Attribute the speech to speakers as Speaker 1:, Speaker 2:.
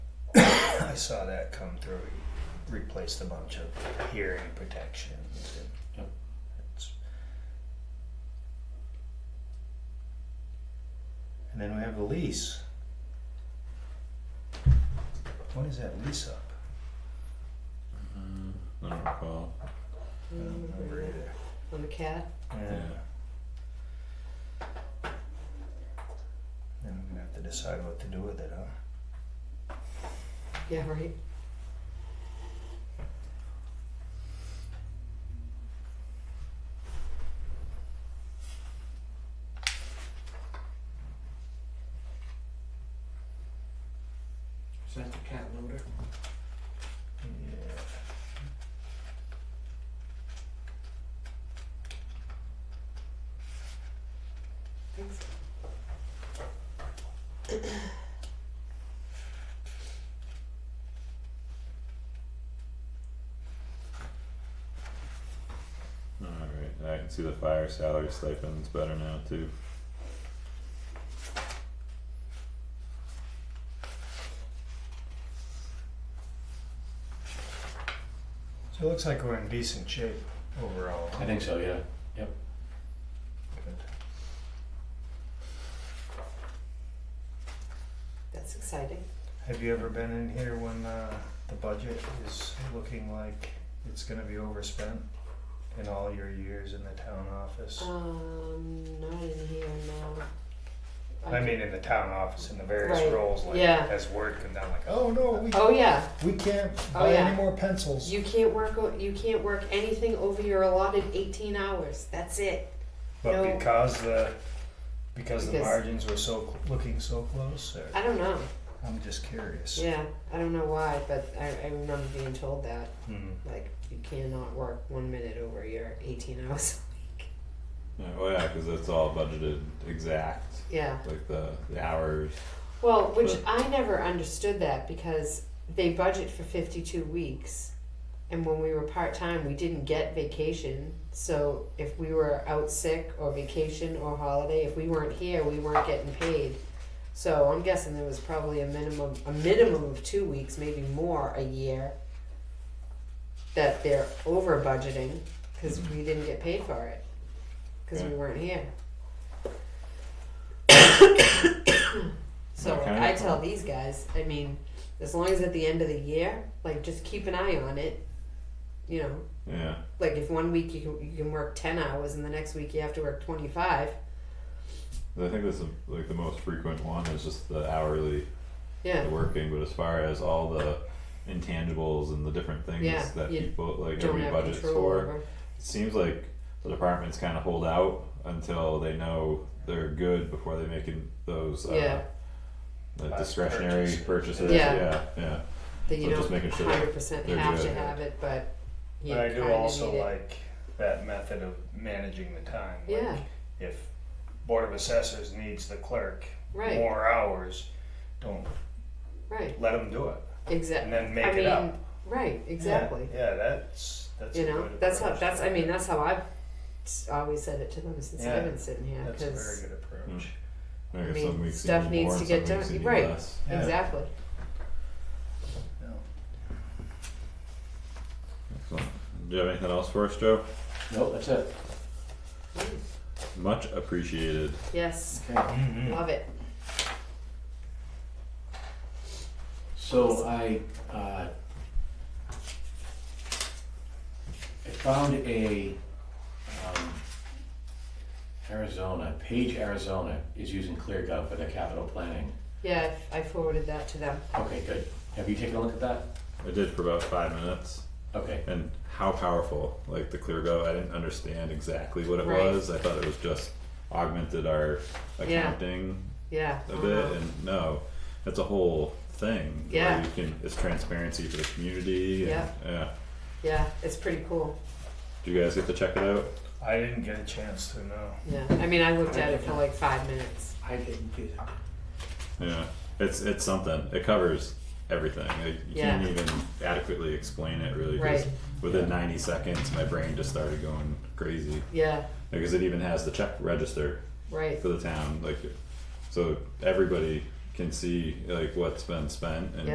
Speaker 1: I saw that come through, replaced a bunch of hearing protections and.
Speaker 2: Yep.
Speaker 1: it's- And then we have the lease. When is that lease up?
Speaker 3: I don't recall.
Speaker 1: I don't remember either.
Speaker 4: On the cat,
Speaker 1: Yeah. Then we're gonna have to decide what to do with it, huh?
Speaker 4: yeah, right,
Speaker 5: Is that the cat loader?
Speaker 1: Yeah.
Speaker 4: thanks.
Speaker 3: Alright, I can see the fire salary stipends better now too.
Speaker 1: So it looks like we're in decent shape overall. huh?
Speaker 2: I think so, yeah.
Speaker 1: Good.
Speaker 4: That's exciting.
Speaker 1: Have you ever been in here when uh, the budget is looking like it's gonna be overspent in all your years in the town office?
Speaker 4: Um, not in here, no.
Speaker 1: I mean, in the town office, in the various
Speaker 4: Right,
Speaker 1: roles, like
Speaker 4: yeah.
Speaker 1: as word come down, like, oh no, we,
Speaker 4: Oh, yeah,
Speaker 1: we can't
Speaker 4: Oh,
Speaker 1: buy
Speaker 4: yeah.
Speaker 1: any more pencils.
Speaker 4: you can't work, o- you can't work anything over your allotted eighteen hours, that's it.
Speaker 1: But
Speaker 4: No.
Speaker 1: because the because the
Speaker 4: Because-
Speaker 1: margins were so cl- looking so close, or,
Speaker 4: I don't know,
Speaker 1: I'm just curious.
Speaker 4: yeah, I don't know why, but I, I remember being told that,
Speaker 1: Hmm.
Speaker 4: like, you cannot work one minute over your eighteen hours.
Speaker 3: Yeah, well, yeah, cause it's all budgeted exact,
Speaker 4: Yeah,
Speaker 3: like the, the hours.
Speaker 4: well, which
Speaker 3: But-
Speaker 4: I never understood that because they budget for fifty-two weeks. And when we were part-time, we didn't get vacation, so if we were out sick or vacation or holiday, if we weren't here, we weren't getting paid. So I'm guessing there was probably a minimum, a minimum of two weeks, maybe more a year. That they're over budgeting, cause
Speaker 3: Mm-hmm.
Speaker 4: we didn't get paid for it, cause we
Speaker 3: Right.
Speaker 4: weren't here. So
Speaker 3: That kind
Speaker 4: I
Speaker 3: of-
Speaker 4: tell these guys, I mean, as long as at the end of the year, like just keep an eye on it, you know,
Speaker 3: Yeah,
Speaker 4: like if one week you can, you can work 10 hours and the next week you have to work
Speaker 3: I
Speaker 4: 25
Speaker 3: think this is like the most frequent one is just the hourly
Speaker 4: yeah
Speaker 3: the working, but as far as all the intangibles and the different things
Speaker 4: Yeah,
Speaker 3: that
Speaker 4: you
Speaker 3: people like
Speaker 4: don't
Speaker 3: every
Speaker 4: have
Speaker 3: budgets
Speaker 4: control
Speaker 3: for,
Speaker 4: over
Speaker 3: it seems like the departments kind of hold out until they know they're good before they make in- those uh,
Speaker 4: Yeah.
Speaker 3: the
Speaker 1: Last
Speaker 3: discretionary
Speaker 1: purchase.
Speaker 3: purchases.
Speaker 4: Yeah.
Speaker 3: yeah, yeah.
Speaker 4: that you
Speaker 3: so just
Speaker 4: don't
Speaker 3: making sure
Speaker 4: 100%
Speaker 3: they're
Speaker 4: have
Speaker 3: good,
Speaker 4: to
Speaker 3: yeah.
Speaker 4: have it but you
Speaker 1: But I do
Speaker 4: kinda
Speaker 1: also
Speaker 4: need it.
Speaker 1: like that method of managing the time. like,
Speaker 4: Yeah.
Speaker 1: If Board of Assessors needs the clerk
Speaker 4: right
Speaker 1: more hours, don't
Speaker 4: right
Speaker 1: let them do it and
Speaker 4: exactly
Speaker 1: then make
Speaker 4: I
Speaker 1: it
Speaker 4: mean
Speaker 1: up.
Speaker 4: right exactly
Speaker 1: Yeah, yeah, that's that's
Speaker 4: you
Speaker 1: a
Speaker 4: know
Speaker 1: good
Speaker 4: that's how
Speaker 1: approach.
Speaker 4: that's I mean that's how I've s- always said it to them since
Speaker 1: Yeah.
Speaker 4: I've been sitting here
Speaker 1: that's a very
Speaker 4: because
Speaker 1: good approach.
Speaker 3: I guess
Speaker 4: mean,
Speaker 3: some weeks you
Speaker 4: stuff
Speaker 3: need
Speaker 4: needs
Speaker 3: more
Speaker 4: to
Speaker 3: and
Speaker 4: get
Speaker 3: some weeks
Speaker 4: done,
Speaker 3: you need
Speaker 4: right.
Speaker 3: less.
Speaker 1: Yeah.
Speaker 4: exactly
Speaker 2: Hmm.
Speaker 1: Yeah.
Speaker 3: Excellent. Do you have anything else for us, Joe?
Speaker 2: Nope, that's it.
Speaker 3: Much appreciated.
Speaker 4: yes
Speaker 2: Okay.
Speaker 1: Mhm.
Speaker 4: love it
Speaker 2: So I, uh, I found a, um, Arizona, Page Arizona is using ClearGov for their capital planning.
Speaker 4: yeah I forwarded that to them
Speaker 2: Okay, good. Have you taken a look at that?
Speaker 3: I did for about five minutes.
Speaker 2: Okay,
Speaker 3: and how powerful like the clear go i didn't understand exactly what it
Speaker 4: Right.
Speaker 3: was i thought it was just augmented our
Speaker 4: Yeah.
Speaker 3: accounting
Speaker 4: yeah
Speaker 3: a
Speaker 4: Uh-huh.
Speaker 3: bit and no it's a whole thing where
Speaker 4: Yeah.
Speaker 3: you can it's transparency for the community and,
Speaker 4: Yeah.
Speaker 3: yeah
Speaker 4: yeah it's pretty cool
Speaker 3: do you guys get to check it out
Speaker 1: I didn't get a chance to know.
Speaker 4: Yeah, I mean, I looked at it for like five minutes.
Speaker 5: I didn't do that.
Speaker 3: yeah it's it's something it covers everything like, you can't even adequately explain it really 'cause
Speaker 4: Right.
Speaker 3: within 90 seconds my brain just started going crazy
Speaker 4: Yeah,
Speaker 3: because it even has the check register
Speaker 4: right.
Speaker 3: for the town, like, so everybody can see like what's been spent and